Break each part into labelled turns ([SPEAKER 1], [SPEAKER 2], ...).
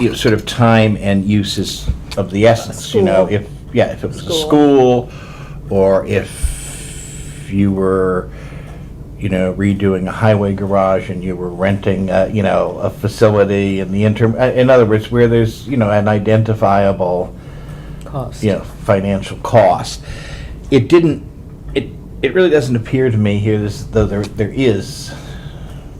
[SPEAKER 1] you know, sort of time and use is of the essence, you know?
[SPEAKER 2] School.
[SPEAKER 1] If, yeah, if it was a
[SPEAKER 2] School.
[SPEAKER 1] school, or if you were, you know, redoing a highway garage and you were renting, uh, you know, a facility in the interim, uh, in other words, where there's, you know, an identifiable,
[SPEAKER 2] cost.
[SPEAKER 1] you know, financial cost. It didn't, it, it really doesn't appear to me here, this, though there, there is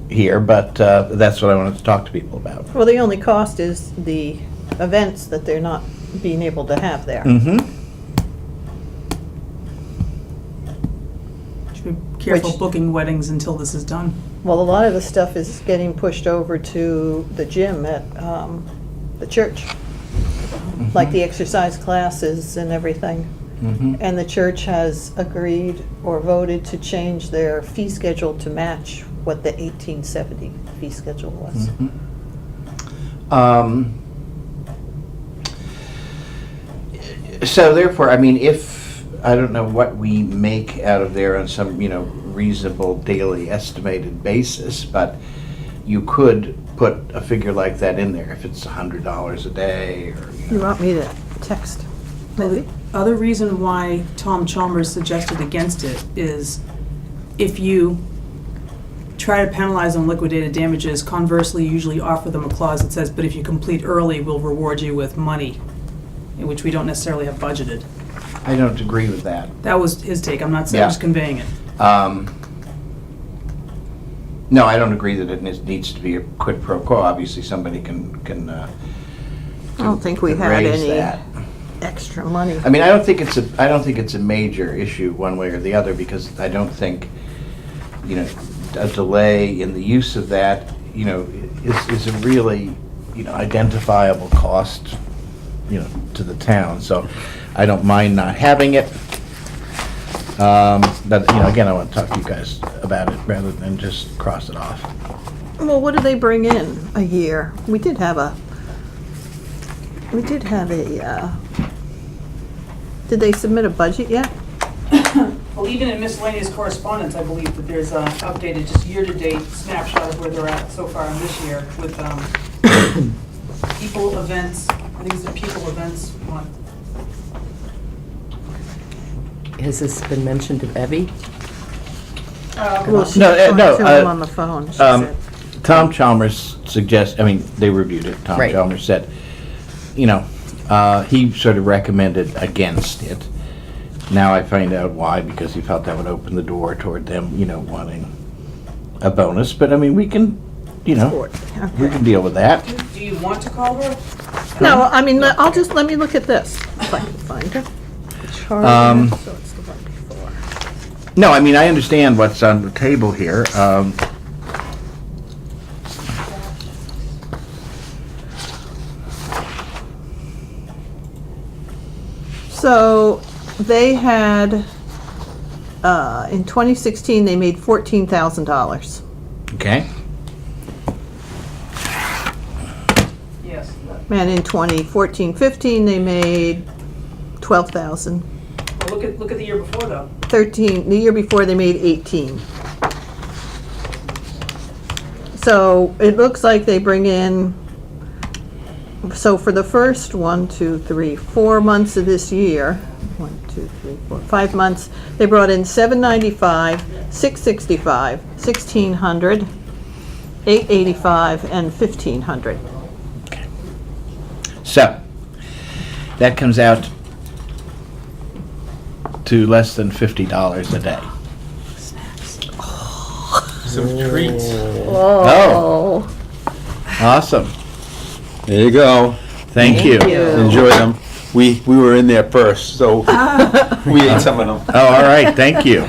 [SPEAKER 1] here, but, uh, that's what I wanted to talk to people about.
[SPEAKER 2] Well, the only cost is the events that they're not being able to have there.
[SPEAKER 1] Mm-hmm,
[SPEAKER 3] Should be careful
[SPEAKER 2] Which-
[SPEAKER 3] booking weddings until this is done.
[SPEAKER 2] Well, a lot of the stuff is getting pushed over to the gym at um, the church, like the exercise classes and everything.
[SPEAKER 1] mm-hmm.
[SPEAKER 2] And the church has agreed or voted to change their fee schedule to match what the 1870 fee schedule was.
[SPEAKER 1] Mm. Um, So therefore, I mean, if, I don't know what we make out of there on some, you know, reasonable daily estimated basis, but you could put a figure like that in there if it's a hundred dollars a day or, you
[SPEAKER 2] You
[SPEAKER 1] know.
[SPEAKER 2] want me to text?
[SPEAKER 3] The other reason why Tom Chalmers suggested against it is if you try to penalize on liquidated damages, conversely, you usually offer them a clause that says, but if you complete early, we'll reward you with money, in which we don't necessarily have budgeted.
[SPEAKER 1] I don't agree with that.
[SPEAKER 3] That was his take, I'm not saying,
[SPEAKER 1] Yeah.
[SPEAKER 3] I'm just conveying it.
[SPEAKER 1] Um, No, I don't agree that it needs- needs to be a quid pro quo. Obviously, somebody can, can, uh,
[SPEAKER 2] I don't think we
[SPEAKER 1] can
[SPEAKER 2] had
[SPEAKER 1] raise
[SPEAKER 2] any
[SPEAKER 1] that.
[SPEAKER 2] extra money.
[SPEAKER 1] I mean, I don't think it's a, I don't think it's a major issue one way or the other, because I don't think, you know, a delay in the use of that, you know, is, is a really, you know, identifiable cost, you know, to the town, so I don't mind not having it. Um, but, you know, again, I want to talk to you guys about it rather than just cross it off.
[SPEAKER 2] Well, what do they bring in a year? We did have a, we did have a, uh, did they submit a budget yet?
[SPEAKER 3] Well, even in miscellaneous correspondence, I believe that there's an updated, just year-to-date snapshot of where they're at so far in this year with um, people events, I think it's the people events one.
[SPEAKER 4] Has this been mentioned to Evie?
[SPEAKER 2] Well,
[SPEAKER 3] Uh,
[SPEAKER 2] she
[SPEAKER 1] No, uh,
[SPEAKER 2] talked
[SPEAKER 1] no,
[SPEAKER 2] to him
[SPEAKER 1] uh,
[SPEAKER 2] on the phone, she
[SPEAKER 1] um,
[SPEAKER 2] said.
[SPEAKER 1] Tom Chalmers suggests, I mean, they reviewed it, Tom
[SPEAKER 4] Right.
[SPEAKER 1] Chalmers said, you know, uh, he sort of recommended against it. Now I find out why, because he felt that would open the door toward them, you know, wanting a bonus, but I mean, we can, you know, we
[SPEAKER 2] Okay.
[SPEAKER 1] can deal with that.
[SPEAKER 3] Do you want to call her?
[SPEAKER 2] No, I mean, let- I'll just, let me look at this, if I can find her.
[SPEAKER 1] Um,
[SPEAKER 2] Charter, so it's the one before.
[SPEAKER 1] No, I mean, I understand what's on the table here. Um,
[SPEAKER 2] So they had, uh, in 2016, they made $14,000.
[SPEAKER 1] okay,
[SPEAKER 3] Yes.
[SPEAKER 2] And in 2014, 15, they made 12,000.
[SPEAKER 3] Well, Look at, look at the year before, though.
[SPEAKER 2] 13, the year before they made 18. So it looks like they bring in, so for the first one, two, three, four months of this year, one, two, three, four, five months, they brought in 795, 665, 1600, 885, and 1500.
[SPEAKER 1] so, that comes out to less than fifty dollars a day.
[SPEAKER 5] Some treats.
[SPEAKER 1] Oh. Awesome.
[SPEAKER 5] There you go.
[SPEAKER 1] Thank you.
[SPEAKER 5] Enjoy them. We, we were in there first, so we ate some of them.
[SPEAKER 1] Oh, all right, thank you.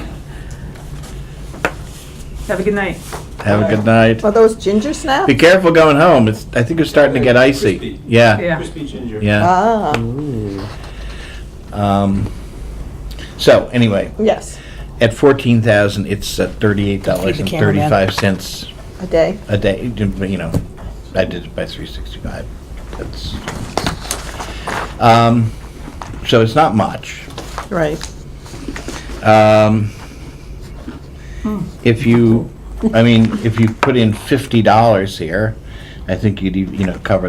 [SPEAKER 3] Have a good night.
[SPEAKER 1] Have a good night.
[SPEAKER 2] Are those ginger snaps?
[SPEAKER 1] Be careful going home. It's, I think it's starting to get icy.
[SPEAKER 5] Crispy.
[SPEAKER 1] Yeah,
[SPEAKER 3] Yeah.
[SPEAKER 5] Crispy ginger.
[SPEAKER 1] yeah.
[SPEAKER 2] Ah,
[SPEAKER 1] Um, so anyway,
[SPEAKER 2] yes,
[SPEAKER 1] at fourteen thousand, it's uh, thirty-eight dollars and thirty-five cents
[SPEAKER 2] a day.
[SPEAKER 1] a day. You know, I did it by three sixty-five. That's. Um, so it's not much.
[SPEAKER 2] Right.
[SPEAKER 1] Um, If you, I mean, if you put in fifty dollars here, I think you'd, e- you know, cover